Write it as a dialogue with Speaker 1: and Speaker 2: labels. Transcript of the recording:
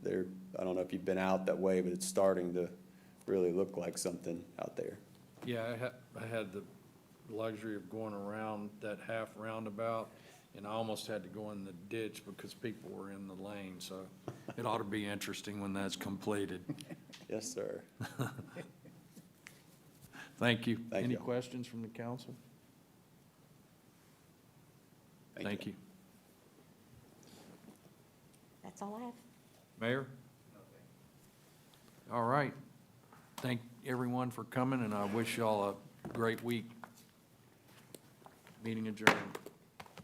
Speaker 1: I don't know if you've been out that way, but it's starting to really look like something out there.
Speaker 2: Yeah, I had, I had the luxury of going around that half roundabout, and I almost had to go in the ditch because people were in the lane, so it ought to be interesting when that's completed.
Speaker 1: Yes, sir.
Speaker 2: Thank you.
Speaker 1: Thank
Speaker 2: Any
Speaker 1: you.
Speaker 2: questions from the council? Thank you.
Speaker 3: That's all I have.
Speaker 2: Mayor? All right. Thank everyone for coming, and I wish y'all a great week. Meeting adjourned.